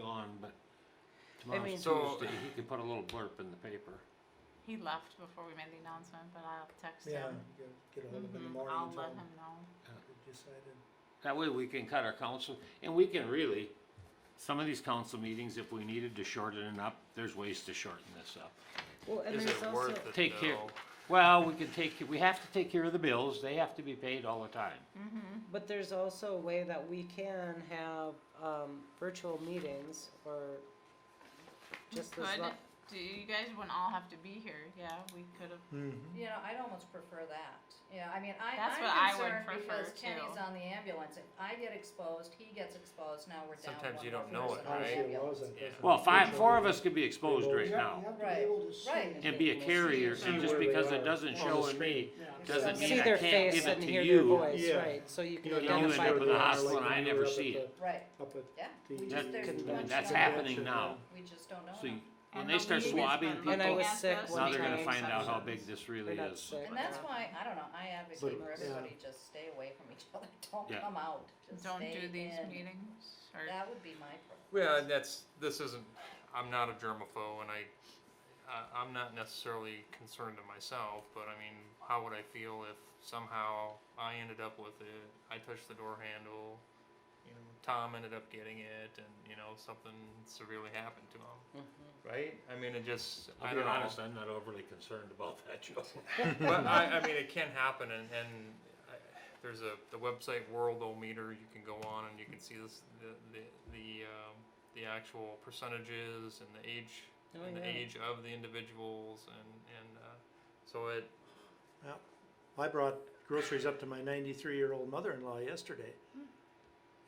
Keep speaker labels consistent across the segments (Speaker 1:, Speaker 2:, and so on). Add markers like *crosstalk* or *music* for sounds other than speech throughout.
Speaker 1: him, but tomorrow's
Speaker 2: mean-
Speaker 3: So-
Speaker 1: Tuesday, he could put a little blurb in the paper.
Speaker 2: He left before we made the announcement, but I'll text
Speaker 4: Yeah,
Speaker 2: him.
Speaker 4: get, get ahold of him in the
Speaker 5: Mm-hmm.
Speaker 2: Mhm,
Speaker 4: morning
Speaker 2: I'll
Speaker 4: and tell
Speaker 2: let
Speaker 4: him
Speaker 2: him know.
Speaker 4: we decided.
Speaker 1: That way we can cut our council, and we can really, some of these council meetings, if we needed to shorten it up, there's ways to shorten this up.
Speaker 6: Well, and
Speaker 3: Is
Speaker 6: there's
Speaker 3: it
Speaker 6: also,
Speaker 3: worth it
Speaker 1: Take care,
Speaker 3: though?
Speaker 1: well, we can take, we have to take care of the bills, they have to be paid all the time.
Speaker 6: but there's also a way that we can have, um, virtual meetings or just
Speaker 2: We
Speaker 6: as
Speaker 2: could,
Speaker 6: lo-
Speaker 2: do you guys wouldn't all have to be here, yeah, we could have,
Speaker 4: Mm-hmm.
Speaker 5: You know, I'd almost prefer that. Yeah, I mean, I,
Speaker 2: That's what I
Speaker 5: I'm
Speaker 2: would
Speaker 5: concerned because
Speaker 2: prefer,
Speaker 5: Kenny's
Speaker 2: too.
Speaker 5: on the ambulance. If I get exposed, he gets exposed, now we're down
Speaker 3: Sometimes
Speaker 5: one
Speaker 3: you
Speaker 5: more
Speaker 3: don't know
Speaker 5: person
Speaker 3: it,
Speaker 5: on the
Speaker 3: right?
Speaker 5: ambulance.
Speaker 3: Yeah.
Speaker 6: Mm-hmm.
Speaker 1: Well, five, four of us could be exposed right now,
Speaker 5: Right, right.
Speaker 1: and be a carrier,
Speaker 4: See
Speaker 1: and just
Speaker 4: where they
Speaker 1: because
Speaker 4: are
Speaker 1: it doesn't
Speaker 4: on
Speaker 1: show
Speaker 4: the
Speaker 1: in me,
Speaker 6: and
Speaker 1: doesn't
Speaker 6: see
Speaker 1: mean I
Speaker 6: their
Speaker 1: can't
Speaker 6: face
Speaker 1: give it
Speaker 6: and
Speaker 1: to
Speaker 6: hear their
Speaker 1: you.
Speaker 6: voice,
Speaker 4: Yeah.
Speaker 6: right, so you can
Speaker 1: know, you
Speaker 6: identify.
Speaker 1: end up
Speaker 6: the
Speaker 1: with a
Speaker 6: person.
Speaker 1: hospital and I never see it.
Speaker 5: Right,
Speaker 4: Up at
Speaker 5: yeah.
Speaker 4: the.
Speaker 5: We
Speaker 1: That-
Speaker 5: just, there's too much.
Speaker 1: That's
Speaker 5: going on.
Speaker 1: happening now,
Speaker 5: We just don't know
Speaker 1: so you-
Speaker 5: enough.
Speaker 1: when
Speaker 2: And
Speaker 1: they
Speaker 2: the
Speaker 1: start
Speaker 2: league has
Speaker 1: swabbing
Speaker 2: been
Speaker 1: people,
Speaker 6: And I was
Speaker 1: now
Speaker 2: Yes,
Speaker 6: sick
Speaker 2: that's
Speaker 6: one
Speaker 2: the
Speaker 1: they're gonna
Speaker 2: time.
Speaker 1: find out how big this
Speaker 6: We're
Speaker 1: really
Speaker 6: not
Speaker 1: is.
Speaker 6: sick.
Speaker 5: And that's why, I don't know, I advocate
Speaker 4: uh, But-
Speaker 5: for
Speaker 4: yeah.
Speaker 5: everybody, just stay away from each other, *laughs* don't
Speaker 1: Yeah.
Speaker 5: come out, just
Speaker 2: don't
Speaker 5: stay
Speaker 2: do these
Speaker 5: in.
Speaker 2: meetings, or,
Speaker 5: That would be my preference.
Speaker 3: Yeah, and that's, this isn't, I'm not a germaphobe and I, I, I'm not necessarily concerned to myself, but I mean, how would I feel if somehow I ended up with it, I touched the door handle, you know, Tom ended up getting it and, you know, something severely happened to him,
Speaker 6: Mm-hmm.
Speaker 3: right? I mean, it just, I
Speaker 1: I'll be
Speaker 3: don't know.
Speaker 1: honest, I'm not overly concerned about that, Joe.
Speaker 3: but
Speaker 1: *laughs*
Speaker 3: I, I mean, it can happen, and, and I, there's a the website Worldometer. You can go on and you can see this the the the, um, the actual percentages and the age
Speaker 6: Oh,
Speaker 3: and the
Speaker 6: yeah.
Speaker 3: age of the individuals, and and uh, so it
Speaker 4: I brought groceries up to my ninety-three-year-old mother-in-law yesterday.
Speaker 1: Hmm.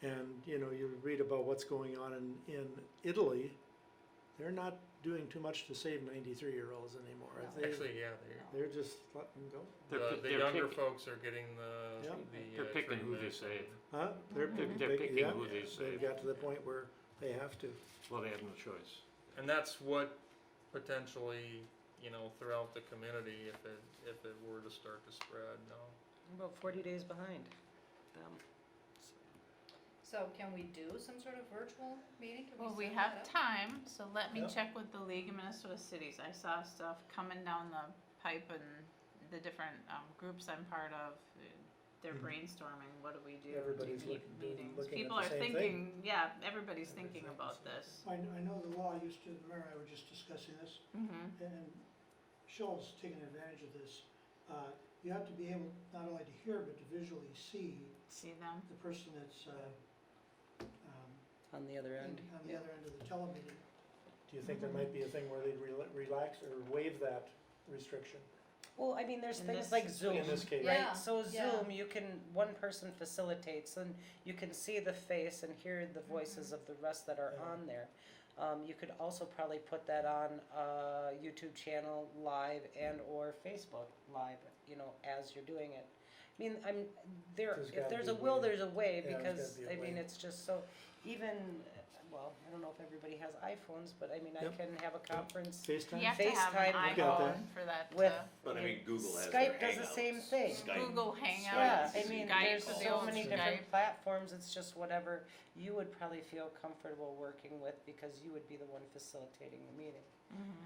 Speaker 4: And, you know, you read about what's going on in, in Italy, they're not doing too much to save ninety-three-year-olds anymore.
Speaker 5: No.
Speaker 4: They-
Speaker 3: actually yeah they.
Speaker 4: They're just letting go,
Speaker 1: *laughs* They're
Speaker 3: The,
Speaker 1: pick-
Speaker 3: the
Speaker 1: they're
Speaker 3: younger
Speaker 1: pick-
Speaker 3: folks are getting the
Speaker 4: Yeah.
Speaker 3: the
Speaker 1: They're
Speaker 3: uh,
Speaker 1: picking who they
Speaker 3: treatment
Speaker 1: save.
Speaker 3: and-
Speaker 4: huh? They're picking,
Speaker 1: They're picking
Speaker 4: yeah,
Speaker 1: who they save.
Speaker 4: they've got to the point where they have to.
Speaker 1: Well, they have no choice.
Speaker 3: and that's what potentially you know throughout the community if it if it were to start to spread. No,
Speaker 6: I'm About forty days behind them.
Speaker 5: So can we do some sort of virtual meeting? Can
Speaker 2: well, we
Speaker 5: set
Speaker 2: have
Speaker 5: that up?
Speaker 2: time, so let me
Speaker 4: Yeah.
Speaker 2: check with the League of Minnesota Cities, I saw stuff coming down the pipe and the different, um, groups I'm part of, uh, they're
Speaker 4: Mhm.
Speaker 2: brainstorming, what do we do? Do
Speaker 4: Everybody's
Speaker 2: we need
Speaker 4: looking- doing-
Speaker 2: meetings?
Speaker 4: looking at
Speaker 2: People
Speaker 4: the
Speaker 2: are
Speaker 4: same thing.
Speaker 2: thinking, yeah, everybody's thinking
Speaker 4: Everything's
Speaker 2: about
Speaker 4: the same.
Speaker 2: this,
Speaker 7: I, I know the law used to, the mayor and I were just discussing this,
Speaker 2: mhm,
Speaker 7: and Schultz taking advantage of this. Uh, you have to be able not only to hear, but to visually see
Speaker 2: see them?
Speaker 7: the person that's, uh, um,
Speaker 6: On the other end.
Speaker 7: in- on the other end of the telemeeting.
Speaker 4: Do you think there might be a thing where they'd rela- relax or waive that restriction?
Speaker 6: Well, I mean, there's
Speaker 2: In
Speaker 6: things
Speaker 2: this-
Speaker 6: like Zoom,
Speaker 4: In this case,
Speaker 5: Yeah,
Speaker 6: right? So
Speaker 5: yeah.
Speaker 6: Zoom, you can, one person facilitates and you can see the face and hear the voices of the rest that are
Speaker 4: Mm-hmm. Yeah.
Speaker 6: on there. Um, you could also probably put that on a YouTube channel live and or Facebook live, you know, as you're doing it. I mean, I'm, there,
Speaker 4: There's
Speaker 6: if
Speaker 4: gotta
Speaker 6: there's
Speaker 4: be
Speaker 6: a
Speaker 4: a
Speaker 6: will,
Speaker 4: way.
Speaker 6: there's a way,
Speaker 4: Yeah, there's
Speaker 6: because,
Speaker 4: gotta be a
Speaker 6: I mean,
Speaker 4: way.
Speaker 6: it's just so, even, uh, well, I don't know if everybody has iPhones, but I mean, I
Speaker 4: Yep.
Speaker 6: can have a conference
Speaker 4: FaceTime?
Speaker 2: You have to have an
Speaker 6: FaceTime,
Speaker 4: look at
Speaker 2: iPhone
Speaker 4: that.
Speaker 2: for that uh,
Speaker 6: with.
Speaker 2: to.
Speaker 8: But I mean, Google has
Speaker 6: Skype
Speaker 8: their
Speaker 6: does the same
Speaker 8: Hangouts.
Speaker 6: thing.
Speaker 8: Skype.
Speaker 2: Google
Speaker 6: Yeah,
Speaker 2: Hangouts,
Speaker 6: I mean,
Speaker 2: Skype,
Speaker 6: there's
Speaker 2: the
Speaker 6: so
Speaker 2: old
Speaker 6: many
Speaker 2: Skype.
Speaker 6: different platforms, it's just whatever you would probably feel comfortable working with because you would be the one facilitating the meeting.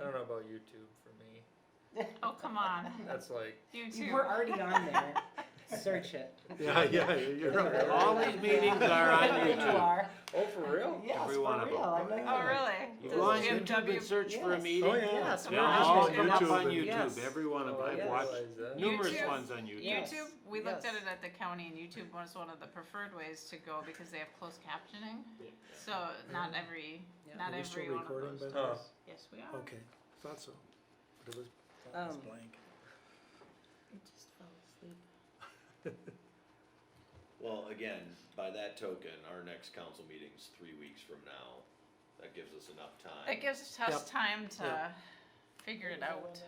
Speaker 3: I don't know about YouTube for me.
Speaker 2: Oh, come on,
Speaker 3: That's like
Speaker 2: you
Speaker 6: You
Speaker 2: too.
Speaker 6: were already on there, *laughs* search it.
Speaker 4: *laughs* Yeah, yeah, you're
Speaker 1: *laughs*
Speaker 4: right.
Speaker 1: All these meetings are on
Speaker 6: There you
Speaker 1: YouTube.
Speaker 6: are.
Speaker 3: Oh, for real?
Speaker 6: Yes,
Speaker 1: Every
Speaker 6: for
Speaker 1: one of 'em.
Speaker 6: real, I'm like,
Speaker 2: Oh, really?
Speaker 1: You
Speaker 2: Does
Speaker 1: go on
Speaker 2: Jim
Speaker 1: YouTube
Speaker 2: W-
Speaker 1: and search for a
Speaker 6: Yes.
Speaker 4: Oh,
Speaker 1: meeting,
Speaker 4: yeah.
Speaker 6: Yes,
Speaker 1: they'll
Speaker 6: we're
Speaker 1: all
Speaker 6: on
Speaker 1: come up on
Speaker 4: YouTube.
Speaker 6: Yes.
Speaker 1: YouTube, every one
Speaker 3: Oh,
Speaker 1: of them, I've
Speaker 6: Oh, yes.
Speaker 1: watched numerous
Speaker 2: YouTube.
Speaker 1: ones on YouTube.
Speaker 6: Yes.
Speaker 2: YouTube, we looked at
Speaker 6: yes.
Speaker 2: it at the county and YouTube was one of the preferred ways to go because they have closed captioning. So not every,
Speaker 6: Yeah.
Speaker 2: not
Speaker 4: Are we still
Speaker 2: every one of
Speaker 4: recording,
Speaker 2: those.
Speaker 4: by the
Speaker 3: way?
Speaker 6: Oh.
Speaker 2: does. Yes, we are.
Speaker 4: Okay, thought so. But it was, thought it was
Speaker 6: Um,
Speaker 4: blank.
Speaker 2: It just fell asleep.
Speaker 8: Well, again, by that token, our next council meeting's three weeks from now. That gives us enough time.
Speaker 2: That gives
Speaker 4: Yep.
Speaker 2: us time to
Speaker 4: Yep.
Speaker 2: figure it out.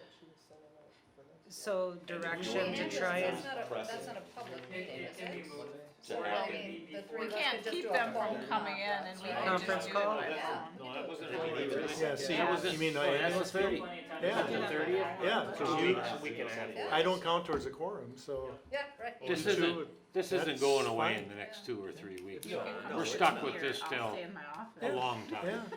Speaker 6: So direction
Speaker 8: And
Speaker 6: to
Speaker 5: That's
Speaker 6: try and,
Speaker 5: not a- That's not a public meeting, is it?
Speaker 8: To
Speaker 5: Or, I
Speaker 8: have it
Speaker 5: mean,
Speaker 8: be
Speaker 5: the three
Speaker 2: We
Speaker 5: of us
Speaker 2: can't
Speaker 5: could just do
Speaker 2: keep
Speaker 5: a
Speaker 2: them
Speaker 5: phone
Speaker 2: from coming in
Speaker 5: conference,
Speaker 2: and we
Speaker 5: right?
Speaker 2: can just
Speaker 6: Conference
Speaker 2: do it
Speaker 6: call?
Speaker 2: by
Speaker 5: Yeah.
Speaker 2: phone.
Speaker 1: No, that wasn't
Speaker 8: a meeting, really.
Speaker 4: Yeah, see,
Speaker 2: Yeah.
Speaker 4: that was, you mean, I-
Speaker 1: That was thirty.
Speaker 4: Yeah.
Speaker 1: The 30th?
Speaker 4: yeah,
Speaker 1: Two
Speaker 4: because
Speaker 1: weeks.
Speaker 4: we,
Speaker 8: We can add it.
Speaker 4: I don't count towards a quorum, so.
Speaker 5: Yeah, right.
Speaker 1: This
Speaker 4: we
Speaker 1: isn't,
Speaker 4: should-
Speaker 1: this
Speaker 4: That's
Speaker 1: isn't going away
Speaker 4: fine.
Speaker 1: in the next two or three weeks,
Speaker 2: You can come
Speaker 8: We're
Speaker 2: sit
Speaker 1: stuck with
Speaker 2: here.
Speaker 1: this
Speaker 2: I'll
Speaker 1: till-
Speaker 2: stay in my office.
Speaker 1: a long time.
Speaker 4: Yeah.